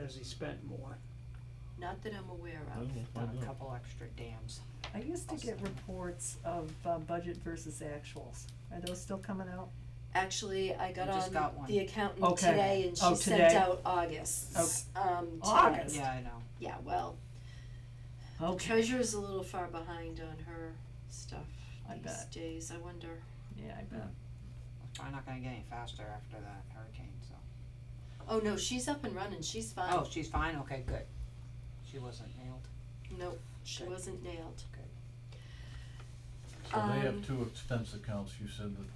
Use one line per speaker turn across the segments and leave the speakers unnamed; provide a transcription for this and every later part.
has he spent more?
Not that I'm aware
I
of.
don't know, why
done a
not?
couple extra dams.
I used to get
Awesome.
reports of uh, budget versus actuals. Are those still coming out?
Actually, I got
You just got
on
one.
the accountant
Okay.
today and
Oh,
she sent
today? Oh.
out August's, um, today.
August?
Yeah, I know.
Yeah, well, the
Okay.
treasurer's a little far behind on her stuff
I
these
bet.
days, I wonder.
Yeah, I bet.
It's probably not gonna get any faster after that hurricane, so.
Oh, no, she's up and running, she's fine.
Oh, she's fine, okay, good. She wasn't nailed.
Nope, she
Good.
wasn't nailed.
So they
Um,
have two expense accounts, you said that.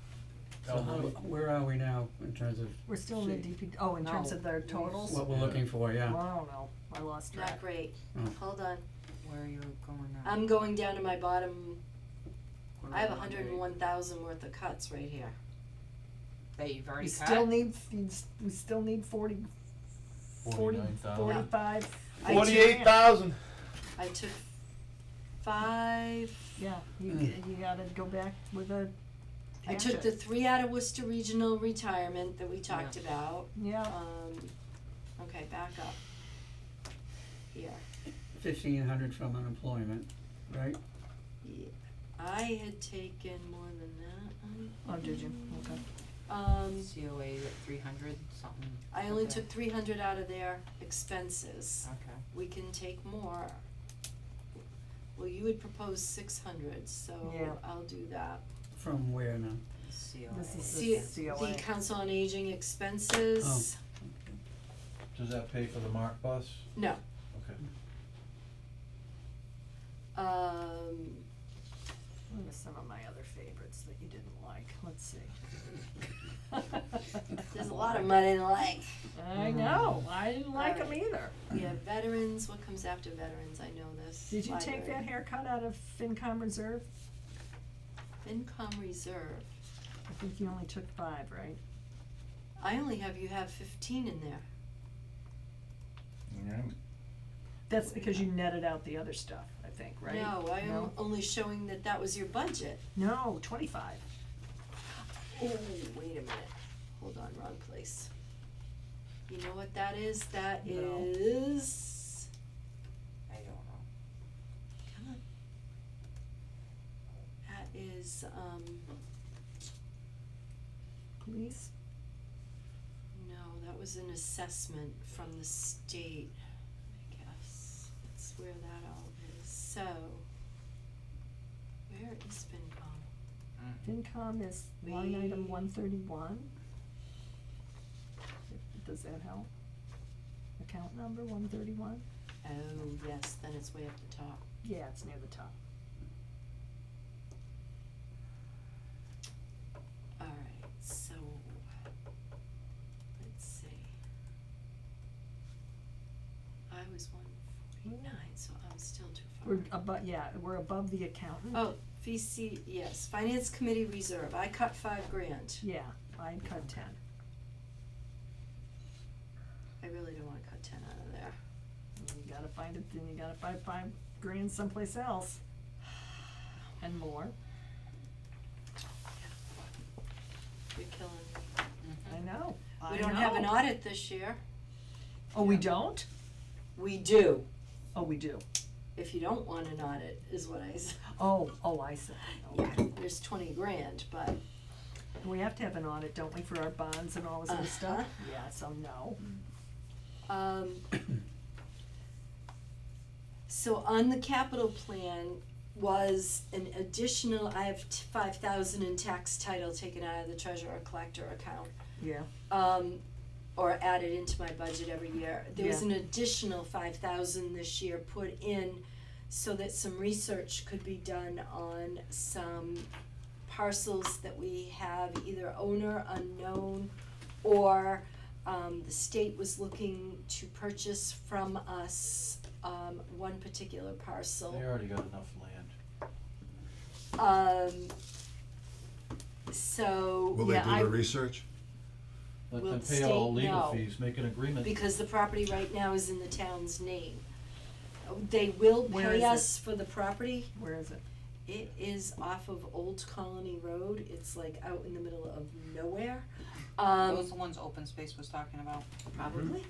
So how,
elderly-
where are we now in terms of
We're still in the
See.
DP, oh, in terms
No.
of their totals?
what we're looking for,
I
yeah?
don't know, I lost track.
Not great,
Mm.
Oh.
hold on,
Where are you going now?
I'm going down to my bottom,
What are
I have
we
a
on
hundred
date?
and one thousand worth of cuts right here.
That you've
We
already cut?
still need, we still need forty, forty,
49,000.
forty-five,
I took-
Forty-eight thousand.
I took five,
yeah, you,
Hmm.
you gotta go back with a
I took the
hatchet.
three out of Worcester Regional Retirement that we talked about,
Yeah,
um, okay, back up. Here,
Fifteen hundred from unemployment, right?
yeah, I had taken more than that,
oh, did you, okay.
Um,
COA at three hundred, something.
I only
Okay.
took three hundred out of their expenses.
Okay.
We can take more. Well, you would propose six hundred, so
Yeah.
I'll do that.
From where now?
COA.
This is-
See,
COA.
the council on aging expenses,
Does that pay for the Mark bus?
No.
Okay.
um,
Let me some of my other favorites that you didn't like, let's see.
there's a lot of money to like.
I know, I didn't like them either.
Yeah, veterans, what comes after veterans, I know this.
Did you take that
Library.
haircut out of FinCom reserve?
FinCom reserve,
I think you only took five, right?
I only have, you have fifteen in there.
Alright.
That's because you netted out the other stuff, I think, right?
No, I am
No?
only showing that that was your budget.
No, twenty-five.
Oh, wait a minute, hold on, wrong place. You know what that is? That
No.
is,
I don't know.
come on. That is, um,
Please?
no, that was an assessment from the state, I guess. That's where that all is, so. Where is FinCom?
Mm.
FinCom is line item
We-
one thirty-one. Does that help? Account number one thirty-one?
Oh, yes, then it's way up the top.
Yeah, it's near the top.
Alright, so, let's see. I was one forty-nine, so I'm still too far.
We're above, yeah, we're above the accountant.
Oh, VC, yes, Finance Committee Reserve, I cut five grand.
Yeah, I cut ten.
I really don't wanna cut ten out of there.
And You gotta find it, then you gotta find five grand someplace else. And more,
You're killing me. Mm-hmm.
I know, I
We don't have an
know.
audit this year.
Oh, we don't?
We do,
Oh, we do.
if you don't want an audit, is what I said.
Oh, oh, I see.
Yeah, there's twenty grand, but,
We have to have an audit, don't we, for our bonds and all this
uh-huh.
other stuff? Yeah, so no.
um. So on the capital plan was an additional, I have five thousand in tax title taken out of the treasurer collector account.
Yeah,
um, or added into my budget every year. There was an additional five thousand this year put in so that some research could be done on some parcels that we have either owner unknown or um, the state was looking to purchase from us um, one particular parcel.
They already got enough land.
Um, so,
Will they
yeah,
do
I
the research?
Let
Will
them
the
pay all
state
legal
know?
fees, make an agreement.
because the property right now is in the town's name. They will
Where is
pay
it?
us for the property.
where is it?
It is off of Old Colony Road. It's like out in the middle of nowhere.
Those
Um,
the ones open space was talking about?
probably.